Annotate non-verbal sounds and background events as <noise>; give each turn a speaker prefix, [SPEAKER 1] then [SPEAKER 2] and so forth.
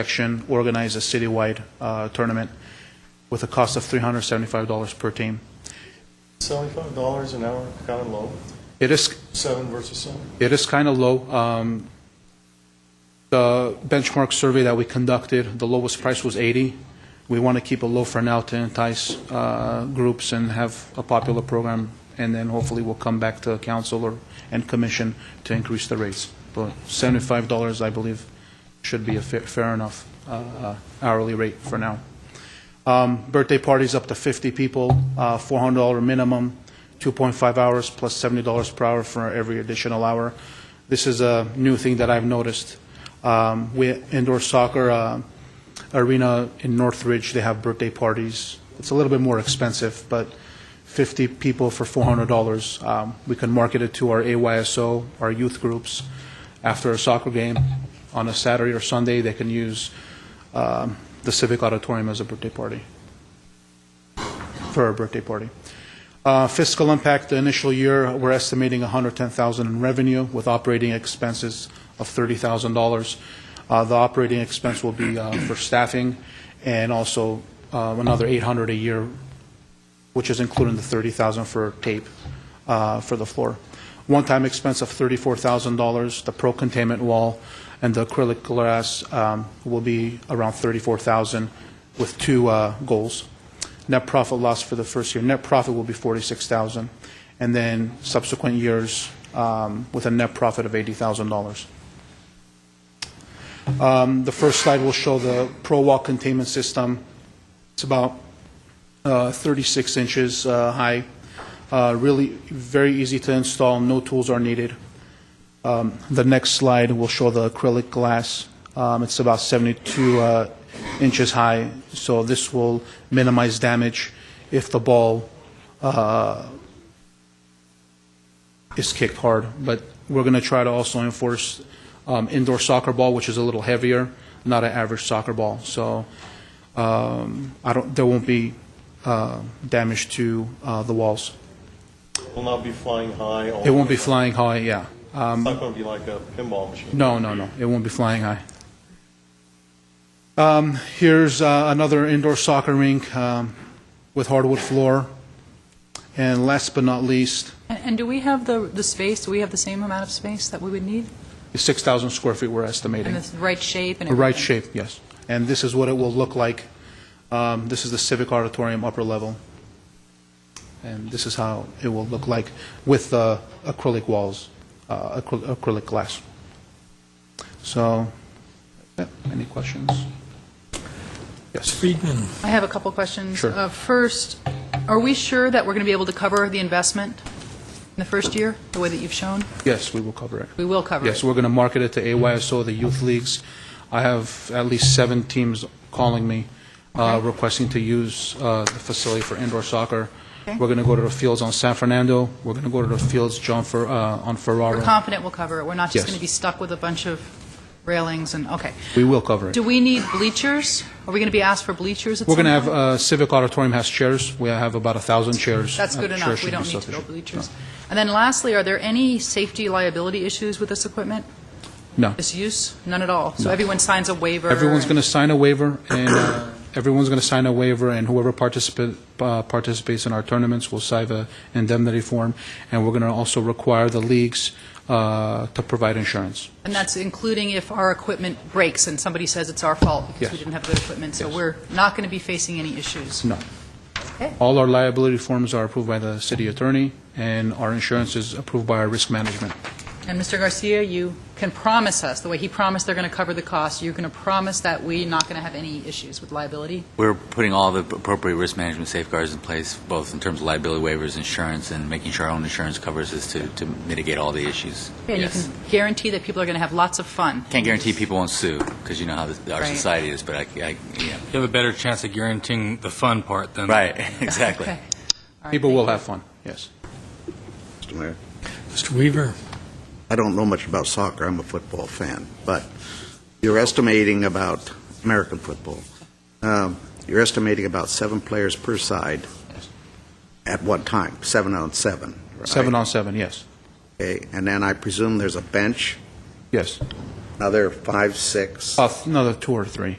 [SPEAKER 1] section organize a citywide uh, tournament with a cost of $375 per team.
[SPEAKER 2] Seventy-five dollars an hour, kind of low,
[SPEAKER 1] It is,
[SPEAKER 2] seven versus seven.
[SPEAKER 1] it is kind of low. Um, The benchmark survey that we conducted, the lowest price was 80. We want to keep it low for now to entice uh, groups and have a popular program, and then hopefully we'll come back to council or, and commission to increase the rates. But $75, I believe, should be a fair- fair enough uh, hourly rate for now. Um, Birthday parties up to 50 people, uh, $400 minimum, 2.5 hours plus $70 per hour for every additional hour. This is a new thing that I've noticed. Um, We Indoor soccer uh, arena in Northridge, they have birthday parties. It's a little bit more expensive, but 50 people for $400. Um, We can market it to our AYSO, our youth groups. After a soccer game on a Saturday or Sunday, they can use um, the Civic Auditorium as a birthday party, for a birthday party. Uh, Fiscal impact, the initial year, we're estimating 110000 in revenue with operating expenses of $30,000. Uh, The operating expense will be uh, for staffing and also uh, another 800 a year which is including the $30,000 for tape uh, for the floor. One-time expense of $34,000, the pro containment wall and the acrylic glass um, will be around $34,000 with two uh, goals. Net profit loss for the first year, net profit will be $46,000, and then subsequent years um, with a net profit of $80,000. Um, The first slide will show the pro wall containment system. It's about uh, 36 inches uh, high. Uh, Really, very easy to install, no tools are needed. Um, The next slide will show the acrylic glass. Um, It's about 72 uh, inches high, so this will minimize damage if the ball uh, is kicked hard. But we're going to try to also enforce um, indoor soccer ball, which is a little heavier, not an average soccer ball. So um, I don't, there won't be uh, damage to uh, the walls.
[SPEAKER 2] Will not be flying high.
[SPEAKER 1] It won't be flying high, yeah. Um,
[SPEAKER 2] It's not going to be like a pinball machine.
[SPEAKER 1] No, no, no, it won't be flying high. Um, Here's uh, another indoor soccer rink um, with hardwood floor. And last but not least,
[SPEAKER 3] And and do we have the, the space, do we have the same amount of space that we would need?
[SPEAKER 1] the 6,000 square feet we're
[SPEAKER 3] And
[SPEAKER 1] estimating.
[SPEAKER 3] the right shape and
[SPEAKER 1] The
[SPEAKER 3] everything?
[SPEAKER 1] Right shape, yes. And this is what it will look like. Um, This is the Civic Auditorium upper level. And this is how it will look like with the acrylic walls, uh, acry- acrylic glass. So, yeah, any questions? Yes.
[SPEAKER 4] Friedman,
[SPEAKER 3] I have a couple questions.
[SPEAKER 1] Sure.
[SPEAKER 3] Uh, First, are we sure that we're going to be able to cover the investment in the first year, the way that you've shown?
[SPEAKER 1] Yes, we will cover it.
[SPEAKER 3] We will cover it.
[SPEAKER 1] Yes, we're going to market it to AYSO, the youth leagues. I have at least seven teams calling me uh, requesting to use uh, the facility for indoor soccer.
[SPEAKER 3] Okay.
[SPEAKER 1] We're going to go to the fields on San Fernando. We're going to go to the fields John Fer- uh, on
[SPEAKER 3] We're
[SPEAKER 1] Ferraro.
[SPEAKER 3] confident we'll cover it, we're not just
[SPEAKER 1] Yes.
[SPEAKER 3] going to be stuck with a bunch of railings and, okay.
[SPEAKER 1] We will cover it.
[SPEAKER 3] Do we need bleachers? Are we going to be asked for bleachers at some
[SPEAKER 1] We're going
[SPEAKER 3] point?
[SPEAKER 1] to have, uh, Civic Auditorium has chairs. We have about a 1,000 chairs.
[SPEAKER 3] That's
[SPEAKER 1] Uh,
[SPEAKER 3] good
[SPEAKER 1] chair
[SPEAKER 3] enough,
[SPEAKER 1] should
[SPEAKER 3] we
[SPEAKER 1] be
[SPEAKER 3] don't need to
[SPEAKER 1] sufficient.
[SPEAKER 3] build bleachers. And then lastly, are there any safety liability issues with this equipment,
[SPEAKER 1] No.
[SPEAKER 3] this use? None at all? So everyone signs a waiver?
[SPEAKER 1] Everyone's
[SPEAKER 3] and-
[SPEAKER 1] going to sign a waiver, and uh, everyone's going to sign a waiver, and whoever participa- uh, participates in our tournaments will sign an indemnity form, and we're going to also require the leagues uh, to provide insurance.
[SPEAKER 3] And that's including if our equipment breaks and somebody says it's our fault because we
[SPEAKER 1] Yes.
[SPEAKER 3] didn't have good equipment, so
[SPEAKER 1] Yes.
[SPEAKER 3] we're not going to be facing any issues.
[SPEAKER 1] No. All our liability forms are approved by the city attorney, and our insurance is approved by our risk management.
[SPEAKER 3] And Mr. Garcia, you can promise us, the way he promised they're going to cover the cost, you're going to promise that we're not going to have any issues with liability?
[SPEAKER 5] We're putting all the appropriate risk management safeguards in place, both in terms of liability waivers, insurance, and making sure our own insurance covers us to, to mitigate all the issues.
[SPEAKER 3] And you
[SPEAKER 5] Yes.
[SPEAKER 3] can guarantee that people are going to have lots of fun?
[SPEAKER 5] Can't guarantee people won't sue, because you know how this- our
[SPEAKER 3] Right.
[SPEAKER 5] society is, but I, I, yeah.
[SPEAKER 4] you have a better chance of guaranteeing the fun part than
[SPEAKER 5] Right, <laughs>
[SPEAKER 3] <laughs>
[SPEAKER 5] exactly.
[SPEAKER 3] Okay. All right,
[SPEAKER 1] People will
[SPEAKER 3] thank
[SPEAKER 1] have fun, yes.
[SPEAKER 6] Mr. Mayor.
[SPEAKER 4] Mr. Weaver.
[SPEAKER 6] I don't know much about soccer, I'm a football fan, but you're estimating about, American football, um, you're estimating about seven players per side at one time, seven on seven, right?
[SPEAKER 1] Seven on seven, yes,
[SPEAKER 6] Okay, and then I presume there's a bench
[SPEAKER 1] yes.
[SPEAKER 6] Another five, six?
[SPEAKER 1] Uh, Another two or three.